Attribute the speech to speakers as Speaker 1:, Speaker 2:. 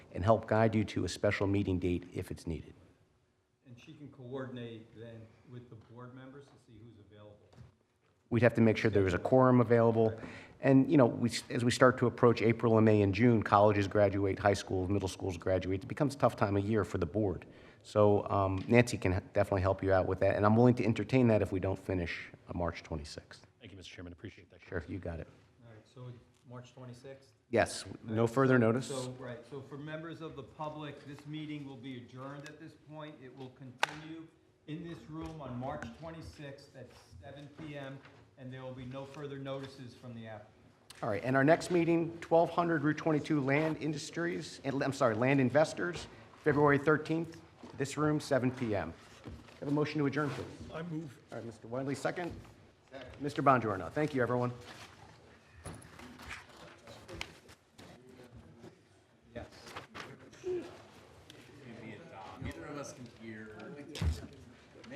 Speaker 1: and help guide you to a special meeting date if it's needed.
Speaker 2: And she can coordinate then with the board members to see who's available.
Speaker 1: We'd have to make sure there was a quorum available. And, you know, we, as we start to approach April and May and June, colleges graduate, high schools, middle schools graduate, it becomes a tough time of year for the board. So um, Nancy can definitely help you out with that, and I'm willing to entertain that if we don't finish on March 26th.
Speaker 3: Thank you, Mr. Chairman, appreciate that.
Speaker 1: Sheriff, you got it.
Speaker 2: All right, so March 26th?
Speaker 1: Yes, no further notice.
Speaker 2: So, right, so for members of the public, this meeting will be adjourned at this point. It will continue in this room on March 26th at 7 PM, and there will be no further notices from the applicant.
Speaker 1: All right, and our next meeting, 1200 Route 22 Land Industries, and- I'm sorry, Land Investors, February 13th, this room, 7 PM. Have a motion to adjourn, please. I move. All right, Mr. Wendley, second. Mr. Bonjorno, thank you, everyone.
Speaker 2: Yes.
Speaker 4: Neither of us can hear.